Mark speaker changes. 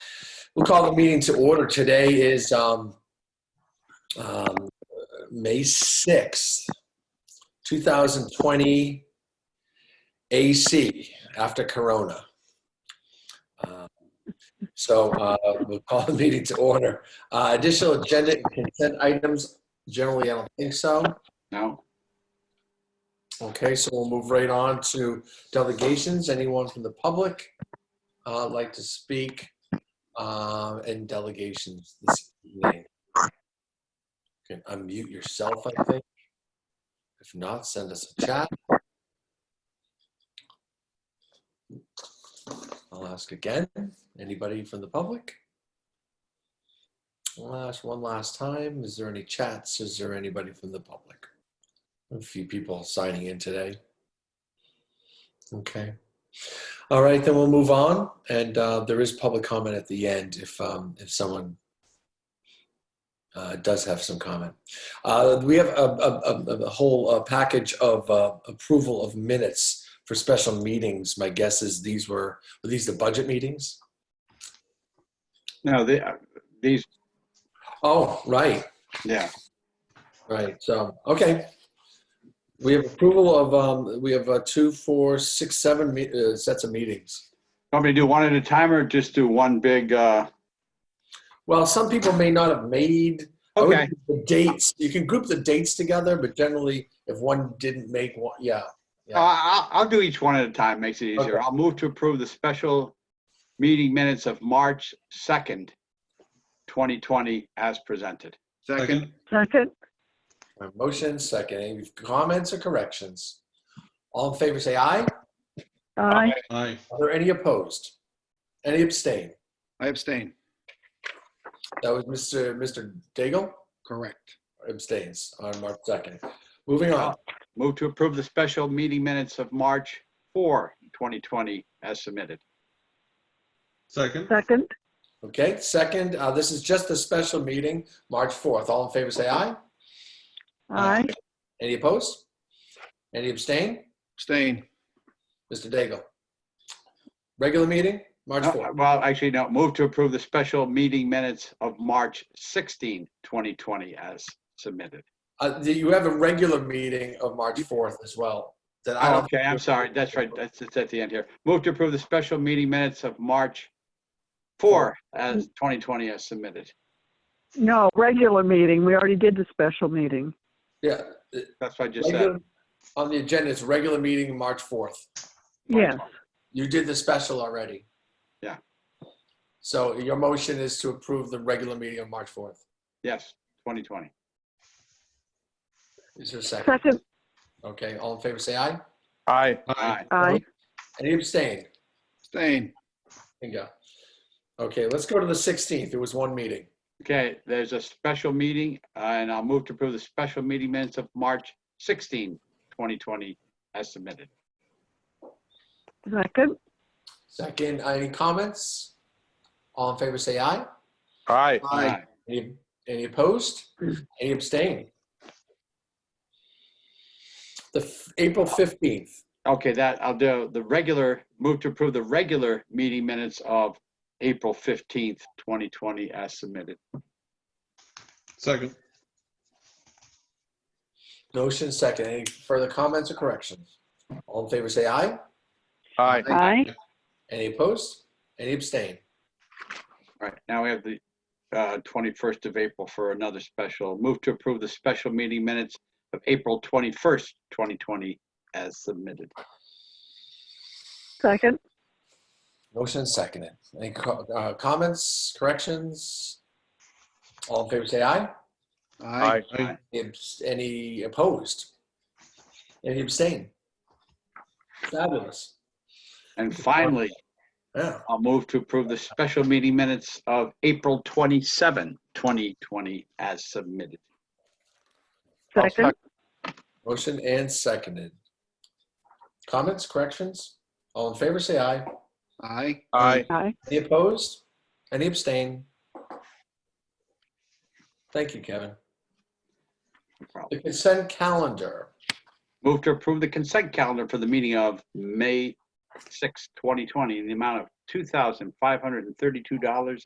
Speaker 1: We'll call the meeting to order. Today is um, um, May 6th, 2020 AC, after Corona. Um, So uh, we'll call the meeting to order. Uh, Additional agenda and consent items, generally, I don't think so.
Speaker 2: No,
Speaker 1: Okay, so we'll move right on to delegations. Anyone from the public uh, like to speak uh, in delegations this evening? You Can unmute yourself, I think. If not, send us a chat. I'll ask again. Anybody from the public? Last, one last time. Is there any chats? Is there anybody from the public? A few people signing in today. Okay. All right, then we'll move on. And uh, there is public comment at the end if um, if someone uh, does have some comment. Uh, we have a, a, a, a whole uh, package of uh, approval of minutes for special meetings. My guess is these were were these the budget meetings?
Speaker 2: no, the- uh, these,
Speaker 1: Oh, right.
Speaker 2: yeah,
Speaker 1: Right, so, okay. We have approval of, um, we have uh, two, four, six, seven me- uh, sets of meetings.
Speaker 2: want me to do one at a time or just do one big, uh,
Speaker 1: Well, some people may not have made. I would
Speaker 2: okay,
Speaker 1: group The dates, you can group the dates together, but generally, if one didn't make one, yeah.
Speaker 2: Uh, I'll, I'll do each one at a time, makes it easier.
Speaker 1: Okay.
Speaker 2: I'll move to approve the special meeting minutes of March 2nd, 2020 as presented.
Speaker 3: Second,
Speaker 4: Second,
Speaker 1: My Motion, second, any comments or corrections? All in favor, say aye.
Speaker 4: aye.
Speaker 3: aye.
Speaker 1: Are there any opposed? Any abstain?
Speaker 3: I abstain.
Speaker 1: That was Mr. Mr. Daigle
Speaker 3: Correct.
Speaker 1: abstains on March 2nd. Moving on.
Speaker 2: Move to approve the special meeting minutes of March 4, 2020 as submitted.
Speaker 3: Second,
Speaker 4: Second,
Speaker 1: Okay, second, uh, this is just a special meeting, March 4th. All in favor, say aye.
Speaker 4: aye.
Speaker 1: Any opposed? Any abstain?
Speaker 3: abstain.
Speaker 1: Mr. Daigle? Regular meeting, March
Speaker 2: No,
Speaker 1: 4th.
Speaker 2: Uh, Well, actually, no, move to approve the special meeting minutes of March 16, 2020 as submitted.
Speaker 1: Uh, do You have a regular meeting of March 4th as well. That I don't.
Speaker 2: Okay, I'm sorry, that's right, that's, it's at the end here. Move to approve the special meeting minutes of March 4 as 2020 as submitted.
Speaker 4: No, regular meeting. We already did the special meeting.
Speaker 1: Yeah.
Speaker 2: That's what I just said.
Speaker 1: regular- On the agenda, it's regular meeting, March 4th.
Speaker 4: Yes,
Speaker 1: You did the special already.
Speaker 2: Yeah.
Speaker 1: So your motion is to approve the regular meeting of March 4th.
Speaker 2: Yes, 2020.
Speaker 1: Is there a second?
Speaker 4: second,
Speaker 1: Okay, all in favor, say aye.
Speaker 3: Aye.
Speaker 2: Aye.
Speaker 4: aye.
Speaker 1: Any abstain?
Speaker 3: Abstain.
Speaker 1: Bingo. Okay, let's go to the 16th. It was one meeting.
Speaker 2: Okay, there's a special meeting, uh, and I'll move to approve the special meeting minutes of March 16, 2020 as submitted.
Speaker 4: Second,
Speaker 1: Second, uh, any comments? All in favor, say aye.
Speaker 5: Aye.
Speaker 3: Aye.
Speaker 1: Any, any opposed? Any abstain? The f- April 15th,
Speaker 2: Okay, that, I'll do the regular, move to approve the regular meeting minutes of April 15th, 2020 as submitted.
Speaker 3: Second,
Speaker 1: motion second. Any further comments or corrections? All in favor, say aye.
Speaker 5: Aye.
Speaker 4: aye.
Speaker 1: Any opposed? Any abstain?
Speaker 2: All right, now we have the uh, 21st of April for another special. Move to approve the special meeting minutes of April 21st, 2020 as submitted.
Speaker 4: Second,
Speaker 1: Motion seconded. Any co- uh, comments, corrections? All in favor, say aye.
Speaker 3: aye.
Speaker 2: Aye.
Speaker 1: Abs- Any opposed? Any abstain? Fabulous.
Speaker 2: And finally,
Speaker 1: Yeah.
Speaker 2: I'll move to approve the special meeting minutes of April 27, 2020 as submitted.
Speaker 5: I'll
Speaker 4: second,
Speaker 5: sec-
Speaker 1: Motion and seconded. Comments, corrections? All in favor, say aye.
Speaker 3: Aye.
Speaker 5: Aye.
Speaker 4: aye.
Speaker 1: Any opposed? Any abstain? Thank you, Kevin.
Speaker 2: No problem.
Speaker 1: The consent calendar.
Speaker 2: Move to approve the consent calendar for the meeting of May 6, 2020 in the amount of $2,532.50.